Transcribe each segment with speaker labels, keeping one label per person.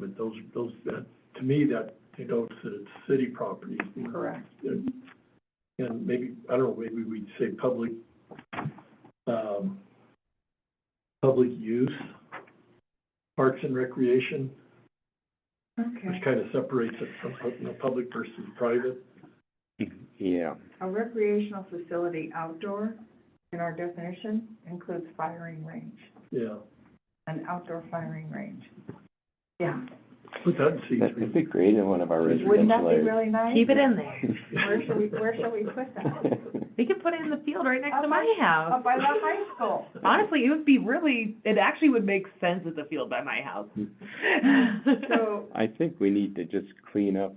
Speaker 1: those, those, that, to me, that denotes that it's city property.
Speaker 2: Correct.
Speaker 1: And and maybe, I don't know, maybe we'd say public, um, public use, parks and recreation, which
Speaker 2: Okay,
Speaker 1: kind of separates it from, pu- you know, public versus private.
Speaker 3: Yeah,
Speaker 2: a recreational facility outdoor, in our definition, includes firing range,
Speaker 1: Yeah,
Speaker 2: an outdoor firing range. Yeah,
Speaker 1: put that in C
Speaker 3: that'd
Speaker 1: three.
Speaker 3: be great in one of our
Speaker 2: wouldn't that
Speaker 3: residential
Speaker 2: be
Speaker 3: areas.
Speaker 2: really nice?
Speaker 4: Keep it in there.
Speaker 2: Where should we, where should we put that?
Speaker 4: We could put it in the field right next
Speaker 2: Up
Speaker 4: to my
Speaker 2: by-
Speaker 4: house.
Speaker 2: Up by the high school.
Speaker 4: Honestly, it would be really, it actually would make sense as a field by my house.
Speaker 2: So,
Speaker 3: I think we need to just clean up,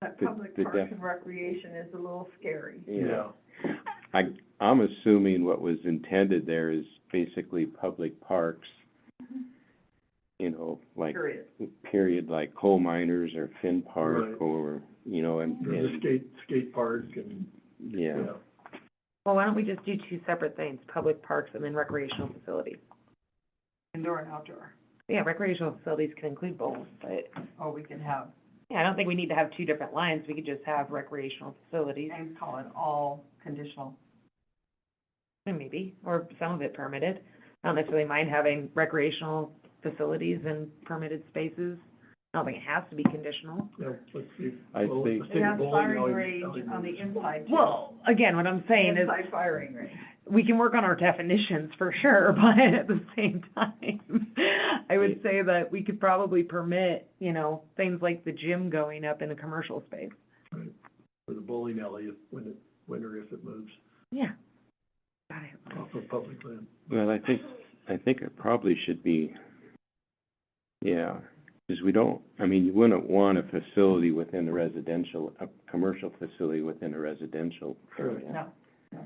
Speaker 2: that
Speaker 3: The-
Speaker 2: public
Speaker 3: the
Speaker 2: parks
Speaker 3: def-
Speaker 2: and recreation is a little scary.
Speaker 3: you know.
Speaker 1: Yeah,
Speaker 3: I, I'm assuming what was intended there is basically public parks, you know, like,
Speaker 2: Period.
Speaker 3: period, like coal miners or Finn
Speaker 1: Right.
Speaker 3: Park or, you know, and,
Speaker 1: or the
Speaker 3: and,
Speaker 1: skate, skate park and,
Speaker 3: yeah.
Speaker 1: yeah.
Speaker 4: Well, why don't we just do two separate things, public parks and then recreational facilities?
Speaker 2: Indoor and outdoor.
Speaker 4: Yeah, recreational facilities can include both, but,
Speaker 2: Oh, we can have,
Speaker 4: yeah, I don't think we need to have two different lines. We could just have recreational facilities,
Speaker 2: and call it all conditional.
Speaker 4: and maybe, or some of it permitted. I don't necessarily mind having recreational facilities and permitted spaces. I don't think it has to be conditional.
Speaker 1: Yeah, let's see.
Speaker 3: I
Speaker 1: Well,
Speaker 3: think-
Speaker 1: let's
Speaker 2: It
Speaker 1: take
Speaker 2: has
Speaker 1: bowling
Speaker 2: firing
Speaker 1: alley-
Speaker 2: range on the inside too.
Speaker 4: Well, again, what I'm saying is,
Speaker 2: Inside firing range.
Speaker 4: we can work on our definitions for sure, but at the same time, I would say that we could probably permit, you know, things like the gym going up in a commercial space.
Speaker 1: Or the bowling alley if, when it, when or if it moves
Speaker 4: Yeah. Got it.
Speaker 1: off of public land.
Speaker 3: Well, I think, I think it probably should be, yeah, because we don't, I mean, you wouldn't want a facility within a residential, a commercial facility within a residential area.
Speaker 2: No.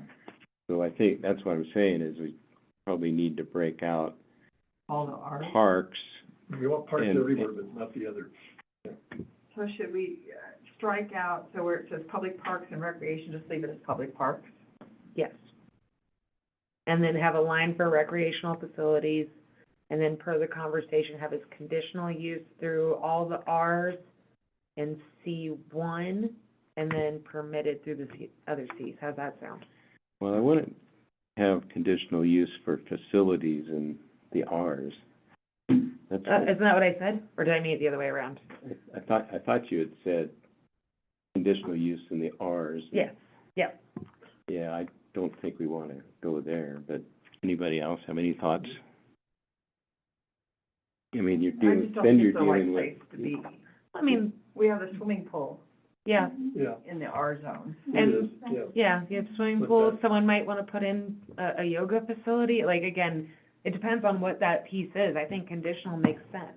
Speaker 3: So I think, that's what I'm saying, is we probably need to break out
Speaker 2: All the R.
Speaker 3: parks,
Speaker 1: We want parks
Speaker 3: And-
Speaker 1: everywhere, but not the other.
Speaker 2: So should we uh, strike out, so where it says public parks and recreation, just leave it as public parks?
Speaker 4: Yes. And then have a line for recreational facilities, and then per the conversation, have its conditional use through all the Rs and C one, and then permitted through the C- other Cs. How's that sound?
Speaker 3: well, I wouldn't have conditional use for facilities in the Rs. That's,
Speaker 4: Uh, isn't that what I said? Or did I mean it the other way around?
Speaker 3: I thought, I thought you had said conditional use in the Rs.
Speaker 4: Yes.
Speaker 3: Yeah, I don't think we want to go there, but anybody else have any thoughts? I mean, you're
Speaker 2: I
Speaker 3: dealing,
Speaker 2: just don't
Speaker 3: then
Speaker 2: think
Speaker 3: you're
Speaker 2: it's the right
Speaker 3: dealing with.
Speaker 2: place to be.
Speaker 4: I mean,
Speaker 2: We have a swimming pool
Speaker 4: yeah,
Speaker 1: Yeah,
Speaker 2: in the R zone.
Speaker 1: it
Speaker 4: And-
Speaker 1: is, yeah.
Speaker 4: yeah, you have swimming
Speaker 1: With
Speaker 4: pools,
Speaker 1: that.
Speaker 4: someone might want to put in a, a yoga facility, like, again, it depends on what that piece is, I think conditional makes sense.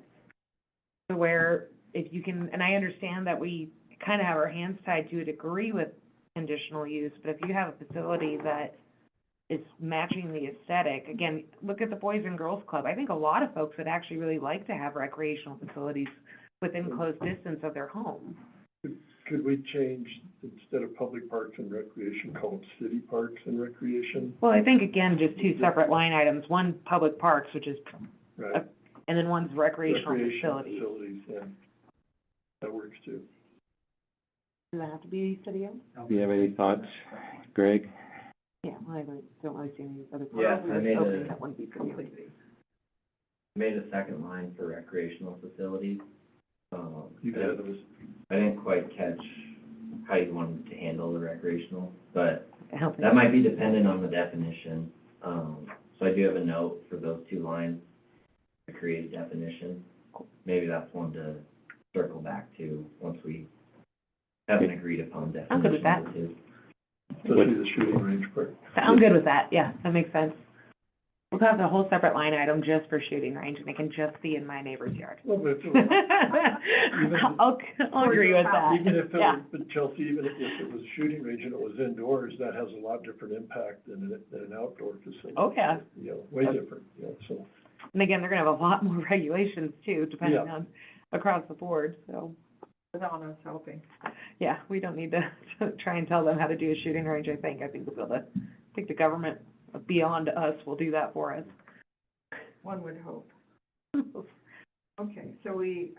Speaker 4: To where, if you can, and I understand that we kind of have our hands tied to a degree with conditional use, but if you have a facility that is matching the aesthetic, again, look at the Boys and Girls Club, I think a lot of folks would actually really like to have recreational facilities within close distance of their home.
Speaker 1: Could we change, instead of public parks and recreation, call it city parks and recreation?
Speaker 4: Well, I think again, just two separate line items, one public parks, which is,
Speaker 1: Right.
Speaker 4: and then one's recreational
Speaker 1: Recreational
Speaker 4: facilities.
Speaker 1: Facilities, yeah. That works too.
Speaker 4: Does that have to be city owned?
Speaker 3: Do you have any thoughts, Greg?
Speaker 4: Yeah, well, I really- don't really see any other.
Speaker 5: Yeah,
Speaker 4: parts of
Speaker 5: I
Speaker 4: this
Speaker 5: made
Speaker 4: opening
Speaker 5: a-
Speaker 1: uh,
Speaker 4: That wouldn't be city owned.
Speaker 5: made a second line for recreational facilities. Um, I
Speaker 1: You guys
Speaker 5: didn't-
Speaker 1: have us-
Speaker 5: I didn't quite catch how you wanted to handle the recreational, but
Speaker 4: I don't think-
Speaker 5: that might be dependent on the definition. Um, so I do have a note for those two lines, to create a definition. Maybe that's one to circle back to once we have an agreed upon definition.
Speaker 4: I'm good with that.
Speaker 5: of the two.
Speaker 1: especially the shooting range part.
Speaker 4: I'm good with that, yeah, that makes sense. We'll have the whole separate line item just for shooting range, and it can just be in my neighbor's yard.
Speaker 1: Well, but if-
Speaker 4: I'll, I'll agree with that,
Speaker 1: Even if,
Speaker 4: yeah.
Speaker 1: it- but Chelsea, even if it was a shooting range and it was indoors, that has a lot different impact than, an- than an outdoor facility.
Speaker 4: Oh, yeah.
Speaker 1: You know, way different, you know, so.
Speaker 4: And again, they're gonna have a lot more regulations too, depending
Speaker 1: Yeah.
Speaker 4: on, across the board, so.
Speaker 2: Without us helping.
Speaker 4: Yeah, we don't need to try and tell them how to do a shooting range, I think. I think we'll be able to, I think the government beyond us will do that for us.
Speaker 2: One would hope. Okay, so we